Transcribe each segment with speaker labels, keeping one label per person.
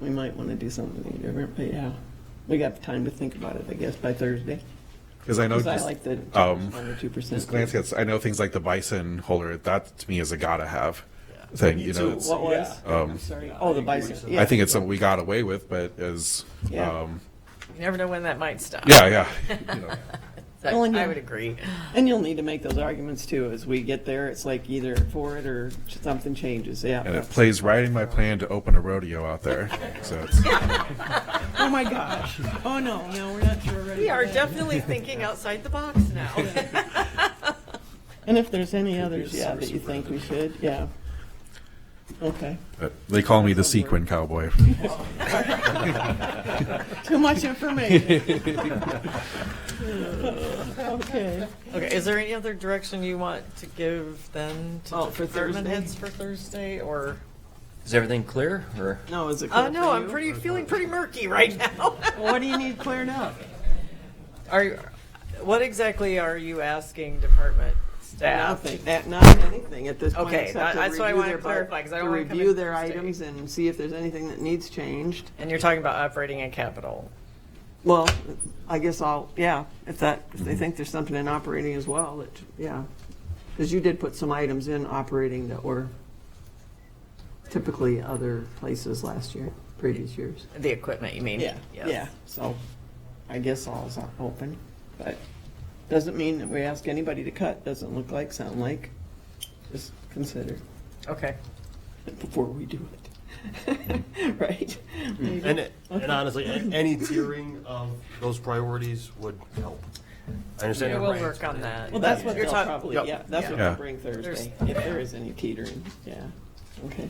Speaker 1: we might want to do something different, but yeah. We got time to think about it, I guess, by Thursday.
Speaker 2: Because I know,
Speaker 1: Because I
Speaker 2: just,
Speaker 1: like the
Speaker 2: um,
Speaker 1: two percent.
Speaker 2: just glancing at, I know things like the bison holder, that to me is a gotta have
Speaker 3: Yeah.
Speaker 2: thing,
Speaker 3: Me
Speaker 2: you
Speaker 3: too.
Speaker 2: know. it's-
Speaker 1: What was?
Speaker 3: Yeah.
Speaker 1: I'm sorry. Oh, the bison, yeah.
Speaker 2: Um, I think it's something we got away with, but as,
Speaker 1: Yeah.
Speaker 2: um,
Speaker 4: You never know when that might stop.
Speaker 2: yeah, yeah. you know.
Speaker 4: So
Speaker 1: Well, and
Speaker 4: I
Speaker 1: you-
Speaker 4: would agree.
Speaker 1: And you'll need to make those arguments too. As we get there, it's like either for it or something changes,
Speaker 2: And
Speaker 1: yeah.
Speaker 2: it plays right in my plan to open a rodeo out there, so it's.
Speaker 1: Oh, my gosh. Oh, no, no, we're not sure already.
Speaker 4: We are definitely thinking outside the box now.
Speaker 1: And if there's any others, yeah, that you think we should, yeah. Okay.
Speaker 2: But They call me the sequin cowboy.
Speaker 1: Too much information. Okay.
Speaker 4: Okay, is there any other direction you want to give then to
Speaker 1: Oh,
Speaker 4: the
Speaker 1: for
Speaker 4: department
Speaker 1: Thursday?
Speaker 4: heads for Thursday or?
Speaker 3: Is everything clear, or?
Speaker 1: No, is it
Speaker 4: Uh,
Speaker 1: clear
Speaker 4: no,
Speaker 1: for
Speaker 4: I'm
Speaker 1: you?
Speaker 4: pretty, feeling pretty murky right now.
Speaker 1: What do you need cleared up?
Speaker 4: Are, you- what exactly are you asking department staff?
Speaker 1: Nothing, that- not anything at this point,
Speaker 4: Okay,
Speaker 1: except
Speaker 4: that-
Speaker 1: to
Speaker 4: that's
Speaker 1: review
Speaker 4: what I wanna
Speaker 1: their, bar-
Speaker 4: clarify, 'cause I
Speaker 1: to
Speaker 4: don't wanna come
Speaker 1: review
Speaker 4: in
Speaker 1: their
Speaker 4: Tuesday.
Speaker 1: items and see if there's anything that needs changed.
Speaker 4: And you're talking about operating and capital.
Speaker 1: Well, I guess I'll, yeah, if that, if they think there's something in operating as well, that, yeah. Because you did put some items in operating that were typically other places last year, previous years.
Speaker 4: The equipment, you mean?
Speaker 1: Yeah,
Speaker 4: Yes.
Speaker 1: yeah, so I guess all's open, but doesn't mean that we ask anybody to cut, doesn't look like, sound like. Just consider
Speaker 4: Okay.
Speaker 1: it before we do it. Right?
Speaker 5: Mm-hmm. And, it- and honestly, a- any tiering of those priorities would help. I understand.
Speaker 4: Yeah,
Speaker 5: you're
Speaker 4: we'll
Speaker 5: right.
Speaker 4: work on that.
Speaker 1: Well, that's what
Speaker 4: You're
Speaker 1: they'll
Speaker 4: talk-
Speaker 1: probably,
Speaker 5: Yep.
Speaker 1: yeah, that's what
Speaker 2: Yeah.
Speaker 1: they'll bring Thursday, if there is any teetering, yeah, okay.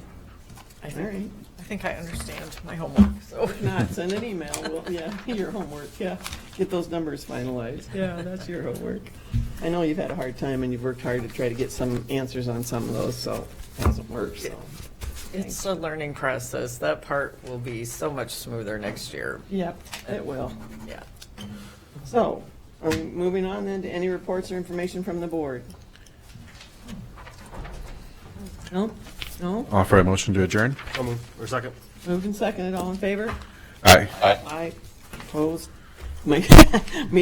Speaker 4: I
Speaker 1: All
Speaker 4: think,
Speaker 1: right,
Speaker 4: I think I understand my homework, so.
Speaker 1: if not, send an email, well, yeah, your homework, yeah, get those numbers finalized, yeah, that's your homework. I know you've had a hard time and you've worked hard to try to get some answers on some of those, so it hasn't worked, so.
Speaker 4: It's a learning process. That part will be so much smoother next year.
Speaker 1: Yep, it will.
Speaker 4: Yeah.
Speaker 1: So, are we moving on then to any reports or information from the board? No, no,
Speaker 2: Offer a motion to adjourn?
Speaker 5: I'll move. Or second.
Speaker 1: moved and seconded, all in favor?
Speaker 2: Aye.
Speaker 1: Aye, opposed? Me- me